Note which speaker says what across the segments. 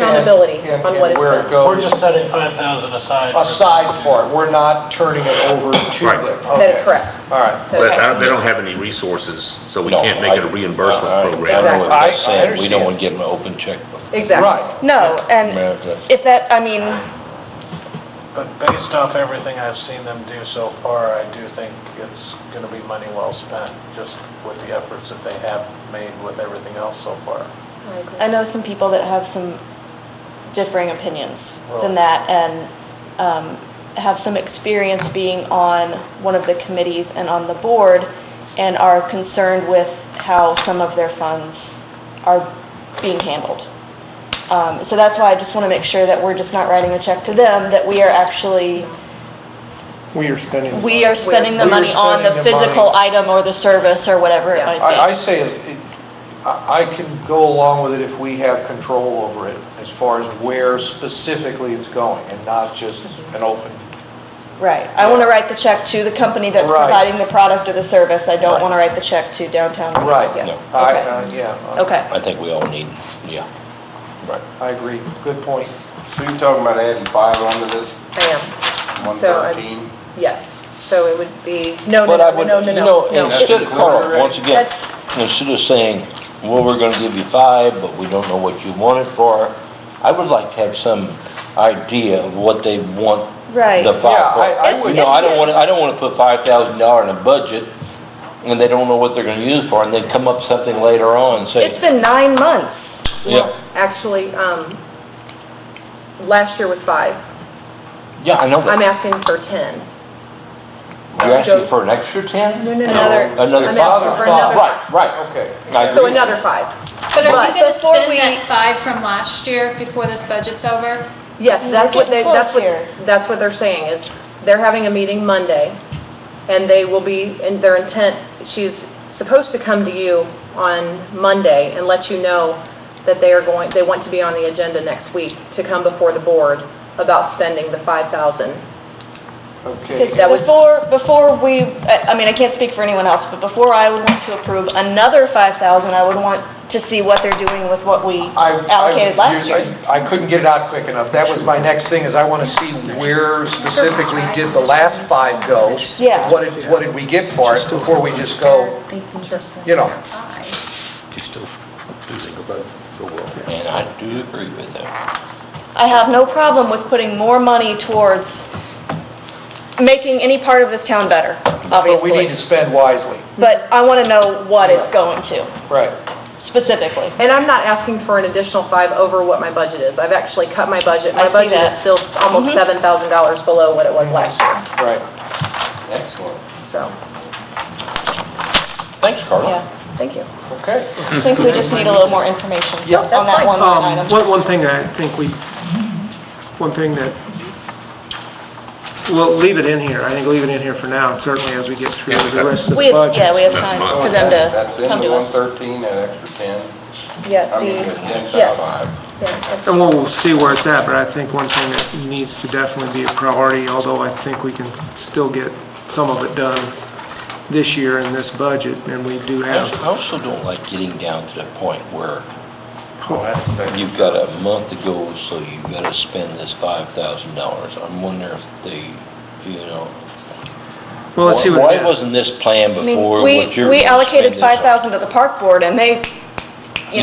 Speaker 1: accountability
Speaker 2: and-
Speaker 1: on what
Speaker 2: and
Speaker 1: is
Speaker 2: where it
Speaker 1: done.
Speaker 2: goes.
Speaker 3: We're just setting 5,000 aside. for-
Speaker 2: Aside for it, we're not turning it over to
Speaker 4: Right.
Speaker 2: them.
Speaker 1: That is
Speaker 2: Okay.
Speaker 1: correct.
Speaker 2: All right.
Speaker 4: But I-
Speaker 1: Okay.
Speaker 4: they don't have any resources, so we
Speaker 5: No,
Speaker 4: can't make it a
Speaker 5: I-
Speaker 4: reimbursement
Speaker 5: I- I
Speaker 4: program.
Speaker 5: know what
Speaker 1: Exactly.
Speaker 5: they're
Speaker 2: I- I
Speaker 5: saying, we
Speaker 2: understand.
Speaker 5: don't want to give them an open checkbook.
Speaker 2: Right.
Speaker 1: Exactly.
Speaker 6: No, and
Speaker 5: America.
Speaker 6: if that, I mean,
Speaker 3: But based off everything I've seen them do so far, I do think it's going to be money well spent, just with the efforts that they have made with everything else so far.
Speaker 1: I agree.
Speaker 6: I know some people that have some differing opinions
Speaker 3: Really?
Speaker 6: than that and um, have some experience being on one of the committees and on the board and are concerned with how some of their funds are being handled. Um, So that's why I just want to make sure that we're just not writing a check to them, that we are actually,
Speaker 7: We are spending. the
Speaker 6: we
Speaker 7: money.
Speaker 6: are spending the
Speaker 2: We are
Speaker 6: money on
Speaker 2: spending
Speaker 6: the
Speaker 2: the money.
Speaker 6: physical item or the service or whatever it
Speaker 1: Yes.
Speaker 6: might be.
Speaker 2: I, I say, is it- I, I can go along with it if we have control over it, as far as where specifically it's going, and not just an open.
Speaker 6: Right, I want to write the check to the company that's
Speaker 2: Right.
Speaker 6: providing the product or the service, I don't
Speaker 2: Right.
Speaker 6: want to write the check to downtown.
Speaker 2: Right.
Speaker 6: Yes.
Speaker 5: No.
Speaker 2: I,
Speaker 6: Okay.
Speaker 2: uh, yeah,
Speaker 6: Okay,
Speaker 5: I think we all need, yeah. Right.
Speaker 2: I I agree, good point.
Speaker 8: So you're talking about adding five onto this,
Speaker 1: I am. So, I'm-
Speaker 8: 113?
Speaker 1: yes, so it would be, no, no,
Speaker 5: But I
Speaker 1: no,
Speaker 5: would,
Speaker 1: no,
Speaker 5: you
Speaker 1: no,
Speaker 5: know,
Speaker 1: no, no.
Speaker 5: instead, Carl, once again,
Speaker 1: That's-
Speaker 5: instead of saying, well, we're gonna give you five, but we don't know what you want it for, I would like to have some idea of what they want
Speaker 6: right.
Speaker 5: the
Speaker 2: Yeah,
Speaker 5: five
Speaker 2: I- I
Speaker 5: for.
Speaker 6: It's-
Speaker 5: You
Speaker 2: would-
Speaker 5: know, I don't
Speaker 6: good.
Speaker 5: wanna, I don't wanna put five thousand dollar in a budget, and they don't know what they're gonna use for, and then come up with something later on and
Speaker 6: It's
Speaker 5: say,
Speaker 6: been nine months.
Speaker 5: yeah,
Speaker 1: Actually, um, last year was five.
Speaker 5: yeah, I know
Speaker 1: I'm
Speaker 5: that.
Speaker 1: asking for 10.
Speaker 5: You're
Speaker 1: to go-
Speaker 5: asking for an extra ten?
Speaker 1: No, no, no.
Speaker 6: Another,
Speaker 5: Another
Speaker 1: I'm
Speaker 5: five?
Speaker 1: asking for another
Speaker 5: Right, right.
Speaker 2: Okay.
Speaker 5: I
Speaker 1: So
Speaker 5: agree.
Speaker 1: another five.
Speaker 9: But are
Speaker 1: But
Speaker 9: you going to
Speaker 6: before
Speaker 9: spend
Speaker 6: we-
Speaker 9: that five from last year before this budget's over?
Speaker 1: Yes,
Speaker 6: Mm,
Speaker 1: that's
Speaker 6: we're
Speaker 1: what they,
Speaker 6: getting
Speaker 1: that's
Speaker 6: close here.
Speaker 1: what, that's what they're saying, is they're having a meeting Monday, and they will be, and their intent, she's supposed to come to you on Monday and let you know that they are going, they want to be on the agenda next week to come before the board about spending the 5,000.
Speaker 2: Okay,
Speaker 6: because
Speaker 1: That was-
Speaker 6: before, before we, I I mean, I can't speak for anyone else, but before I would want to approve another 5,000, I would want to see what they're doing with what we
Speaker 2: I- I-
Speaker 6: allocated last
Speaker 2: you- I-
Speaker 6: year.
Speaker 2: I couldn't get it out quick enough. That was my next thing, is I want to see where specifically did the last five go?
Speaker 6: Yeah.
Speaker 2: What did, what did we get for it before we just go, you know?
Speaker 5: And I do agree with that.
Speaker 6: I have no problem with putting more money towards making any part of this town better,
Speaker 2: But we need
Speaker 6: obviously.
Speaker 2: to spend wisely.
Speaker 6: But I want to know what it's going to
Speaker 2: Right.
Speaker 6: specifically.
Speaker 1: And I'm not asking for an additional five over what my budget is. I've actually cut my budget.
Speaker 6: I
Speaker 1: My
Speaker 6: see
Speaker 1: budget is
Speaker 6: that. Mm-hmm.
Speaker 1: still s- almost $7,000 below what it was last year,
Speaker 2: Right.
Speaker 5: Excellent.
Speaker 1: so,
Speaker 5: Thanks, Carla.
Speaker 6: Yeah,
Speaker 1: thank you.
Speaker 2: Okay.
Speaker 6: I think we just need a little more information on
Speaker 2: Yep,
Speaker 1: that's
Speaker 6: that
Speaker 1: fine.
Speaker 6: one line
Speaker 7: Um,
Speaker 6: item.
Speaker 7: one, one thing I think we, one thing that, we'll leave it in here, I think leave it in here for now, and certainly as we get through
Speaker 4: Yeah,
Speaker 7: the rest of
Speaker 6: We
Speaker 7: the
Speaker 6: have, yeah, we
Speaker 7: budgets.
Speaker 6: have time for them
Speaker 8: That's
Speaker 6: to
Speaker 8: in
Speaker 6: come
Speaker 8: the
Speaker 6: to us.
Speaker 8: 113, that extra 10?
Speaker 1: Yeah,
Speaker 8: I
Speaker 1: the,
Speaker 8: mean, the
Speaker 1: yes,
Speaker 8: 10,000.
Speaker 1: yeah, that's-
Speaker 7: And we'll see where it's at, but I think one thing that needs to definitely be a priority, although I think we can still get some of it done this year in this budget, and we do
Speaker 5: I
Speaker 7: have,
Speaker 5: also- I also don't like getting down to the point where
Speaker 8: Oh, that's big.
Speaker 5: you've got a month to go, so you've got to spend this five thousand dollars. I'm wondering if they, you know.
Speaker 7: well, let's see what
Speaker 5: Why
Speaker 7: it is.
Speaker 5: wasn't this planned
Speaker 6: I
Speaker 5: before what
Speaker 6: mean, we,
Speaker 5: you're gonna
Speaker 6: we
Speaker 5: spend
Speaker 6: allocated
Speaker 5: this on?
Speaker 6: 5,000 to the park board and they, you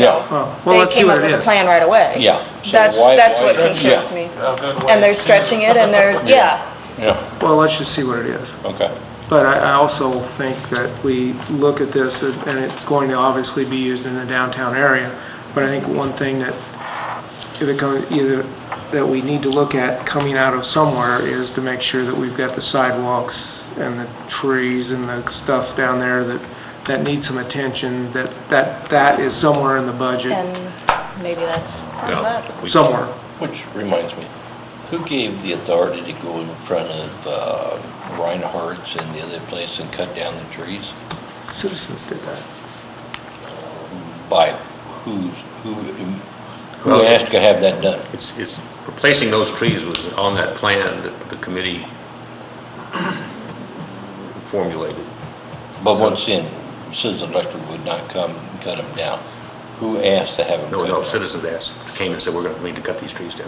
Speaker 7: Oh,
Speaker 6: know,
Speaker 7: well,
Speaker 6: they
Speaker 7: let's see
Speaker 6: came
Speaker 7: what
Speaker 6: up
Speaker 7: it
Speaker 6: with a
Speaker 7: is.
Speaker 6: plan right away.
Speaker 5: Yeah. So
Speaker 6: That's,
Speaker 5: why-
Speaker 6: that's
Speaker 5: why-
Speaker 6: what
Speaker 5: yeah,
Speaker 6: concerns me.
Speaker 3: A good way
Speaker 6: And they're
Speaker 3: to-
Speaker 6: stretching it and they're, yeah,
Speaker 5: Yeah,
Speaker 7: Well, let's just see what it is.
Speaker 5: okay.
Speaker 7: But I, I also think that we look at this, and and it's going to obviously be used in the downtown area, but I think one thing that, if it comes, either, that we need to look at coming out of somewhere is to make sure that we've got the sidewalks and the trees and the stuff down there that, that needs some attention, that, that, that is somewhere in the budget,
Speaker 6: and maybe that's part of that.
Speaker 4: Yeah, we-
Speaker 7: somewhere.
Speaker 5: Which reminds me, who gave the authority to go in front of uh, Reinhardt's and the other place and cut down the trees?
Speaker 7: Citizens did that.
Speaker 5: By who's, who, who
Speaker 4: Well-
Speaker 5: asked to have that done?
Speaker 4: It's, it's, replacing those trees was on that plan that the committee formulated.
Speaker 5: But once in, Citizens Electric would not come and cut them down. Who asked to have it?
Speaker 4: No,
Speaker 5: cut
Speaker 4: no,
Speaker 5: down?
Speaker 4: citizens asked, came and said, we're going to need to cut these trees down.